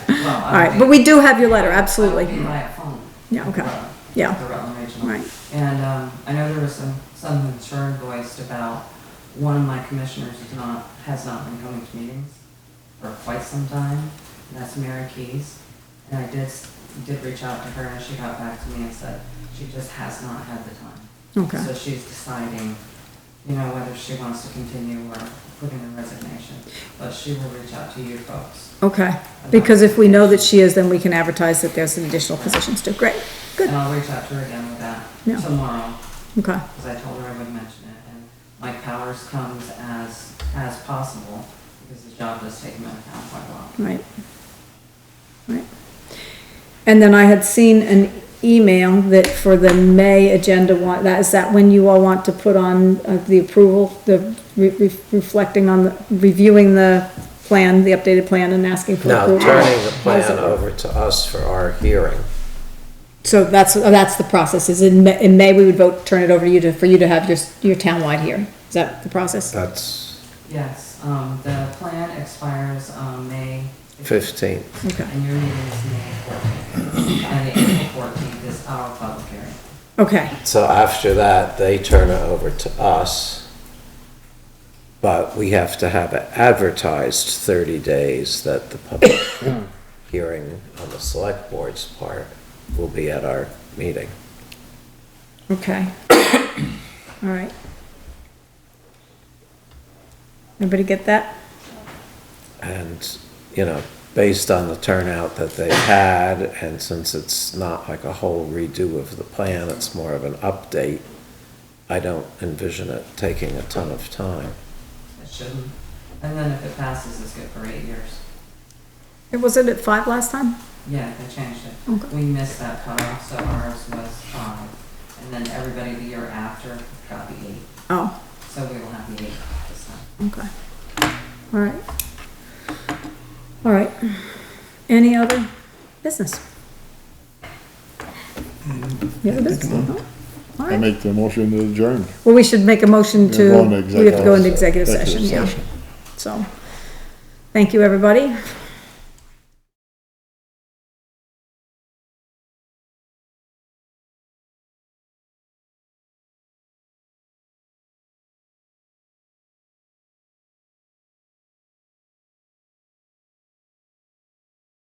I All right, but we do have your letter, absolutely. Be my phone. Yeah, okay. Right. Yeah. The Rutland Regional. Right. And, um, I know there was some, some concern voiced about one of my commissioners is not, has not been coming to meetings for quite some time, and that's Mary Keys. And I did, s- did reach out to her, and she got back to me and said she just has not had the time. Okay. So she's deciding, you know, whether she wants to continue or put in a resignation, but she will reach out to you folks. Okay, because if we know that she is, then we can advertise that there's some additional positions too. Great, good, And I'll reach out to her again with Yeah. that tomorrow. okay, because I told her I would mention it, and Mike Powers comes as, as possible, because his job does take him out of town quite a lot. right. Right. And then I had seen an email that for the May agenda, wa- that, is that when you all want to put on uh, the approval, the re- re- reflecting on, the reviewing the plan, the updated plan and asking for Now, approval? turning the How's plan it- over to us for our hearing. So that's, that's the process, is in May, in May we would vote, turn it over to you to, for you to have your, your townwide hearing. Is that the process? That's Yes, um, the plan expires, um, May. 15. Okay, And your meeting is May fourteenth, and the April fourteenth is our public hearing. okay, So after that, they turn it over to us. But we have to have it advertised 30 days that the public hearing on the select board's part will be at our meeting. okay. All right. Everybody get that? And, you know, based on the turnout that they've had, and since it's not like a whole redo of the plan, it's more of an update, I don't envision it taking a ton of time. It shouldn't, and then if it passes, it's good for eight years. It wasn't at five last time? Yeah, they changed it. Okay. We missed that cutoff, so ours was five, and then everybody the year after got the eight. Oh, So we will have the eight this time. okay. All right. All right. Any other business? Any other business? No? All I right. make the motion to adjourn. Well, we should make a motion Yeah, to, go into we have to go into executive executive session, yeah. So, thank you, everybody.